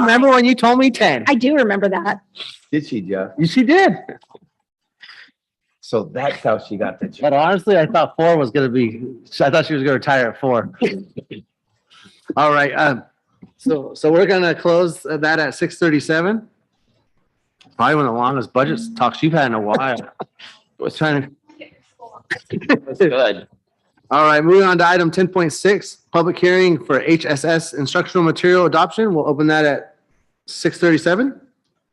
remember when you told me ten? I do remember that. Did she, Jeff? You she did. So that's how she got the job. But honestly, I thought four was gonna be, I thought she was gonna retire at four. All right, um, so, so we're gonna close that at six thirty-seven. Probably one of the longest budget talks you've had in a while. Was trying to, That's good. all right, moving on to item ten point six, public hearing for HSS instructional material adoption. We'll open that at six thirty-seven.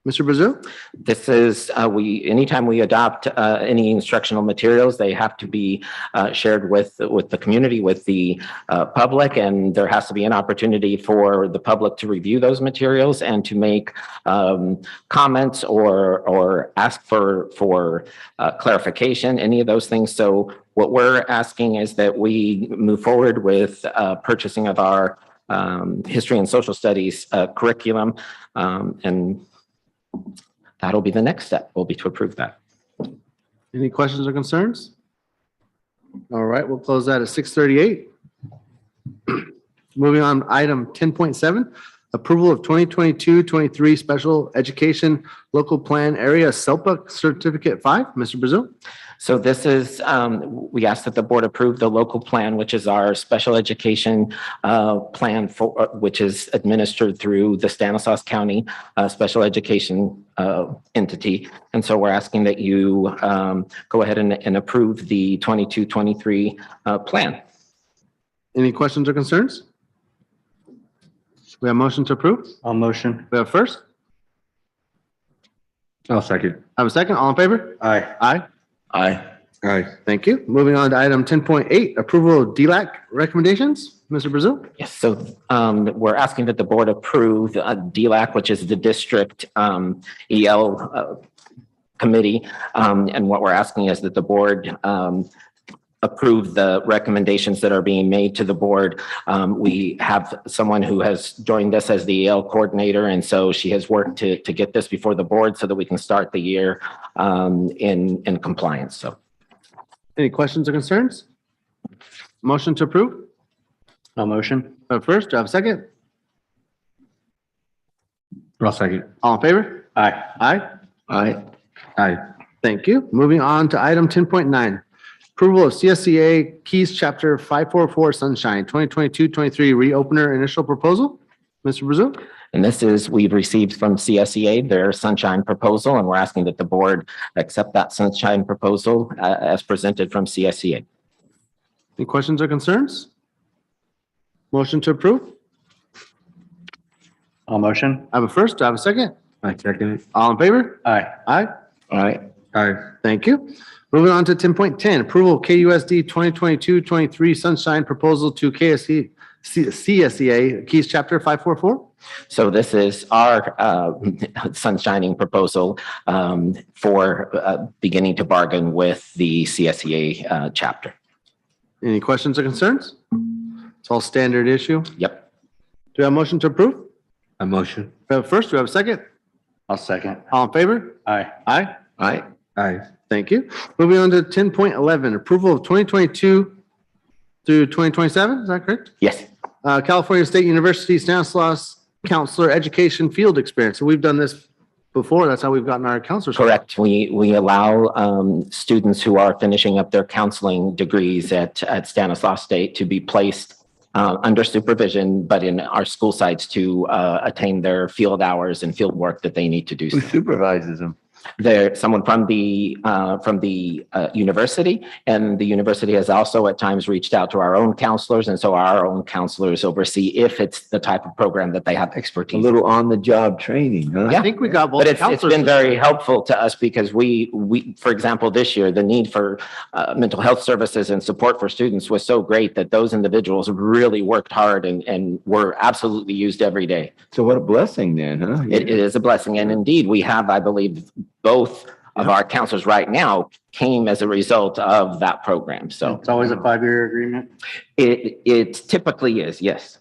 Mr. Brazil? This is, uh, we, anytime we adopt, uh, any instructional materials, they have to be, uh, shared with, with the community, with the, uh, public, and there has to be an opportunity for the public to review those materials and to make, um, comments or, or ask for, for, uh, clarification, any of those things. So what we're asking is that we move forward with, uh, purchasing of our, um, history and social studies, uh, curriculum, um, and that'll be the next step, will be to approve that. Any questions or concerns? All right, we'll close that at six thirty-eight. Moving on, item ten point seven, approval of 2022-23 special education local plan area SELPA certificate five. Mr. Brazil? So this is, um, we ask that the board approve the local plan, which is our special education, uh, plan for, which is administered through the Stanislaus County, uh, special education, uh, entity. And so we're asking that you, um, go ahead and, and approve the 22-23 uh, plan. Any questions or concerns? We have motion to approve. I'll motion. We have first, I'll second. have a second, all in favor? Aye. Aye. Aye. Aye. Thank you. Moving on to item ten point eight, approval of DLAC recommendations. Mr. Brazil? Yes, so um, we're asking that the board approve uh, DLAC, which is the district um, EL uh, committee. Um, And what we're asking is that the board um, approve the recommendations that are being made to the board. Um, We have someone who has joined us as the EL coordinator, and so she has worked to to get this before the board so that we can start the year um, in in compliance. So Any questions or concerns? Motion to approve? I'll motion. Uh, First, do I have a second? I'll second. All in favor? Aye. Aye. Aye. Aye. Thank you. Moving on to item 10.9. Approval of CSCA Keys Chapter 544 Sunshine 2022-23 Reopener Initial Proposal. Mr. Brazil? And this is, we've received from CSEA their sunshine proposal, and we're asking that the board accept that sunshine proposal uh, as presented from E CSEA. Any questions or concerns? Motion to approve? I'll motion. I have a first, do I have a second? I second. All in favor? Aye. Aye. Aye. Aye. Thank you. Moving on to 10.10, approval of KUSD 2022-23 Sunshine Proposal to KSC, C- CSEA Keys Chapter 544. So this is our uh, sunshining proposal um, for uh, beginning to bargain with the CSEA uh, chapter. Any questions or concerns? It's all standard issue. Do Yep. we have a motion to approve? I motion. We have a first, do we have a second? I'll second. All in favor? Aye. Aye. Aye. Aye. Thank you. Moving on to ten point eleven, approval of twenty twenty-two through twenty twenty-seven, is that correct? Yes. Uh, California State University Stanislaus Counselor Education Field Experience. So we've done this before. That's how we've gotten our counselors. Correct. We, we allow um, students who are finishing up their counseling degrees at, at Stanislaus State to be placed uh, under supervision, but in our school sites to uh, attain their field hours and field work that they need to do. Who supervises them? There, someone from the, uh, from the uh, university, and the university has also at times reached out to our own counselors, and so our own counselors oversee if it's the type of program that they have A expertise. in. little on-the-job training, huh? I think we got both But it's, it's counselors. been very helpful to us because we, we, for example, this year, the need for uh, mental health services and support for students was so great that those individuals really worked hard and, and were absolutely used every day. So what a blessing then, huh? It it is a blessing. And indeed, we have, I believe, both of our counselors right now came as a result of that program. So It's always a five-year agreement. it, it typically is, yes.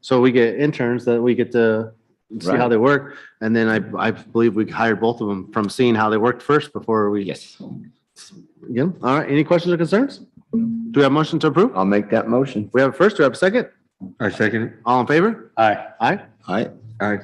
So we get interns that we get to see how Right. they work. And then I, I believe we hired both of them from seeing how they worked first before we Yes. Yeah, all right, any questions or concerns? Do we have motion to approve? I'll make that motion. We have a first, do we have a second? I second. All in favor? Aye. Aye. Aye. Aye.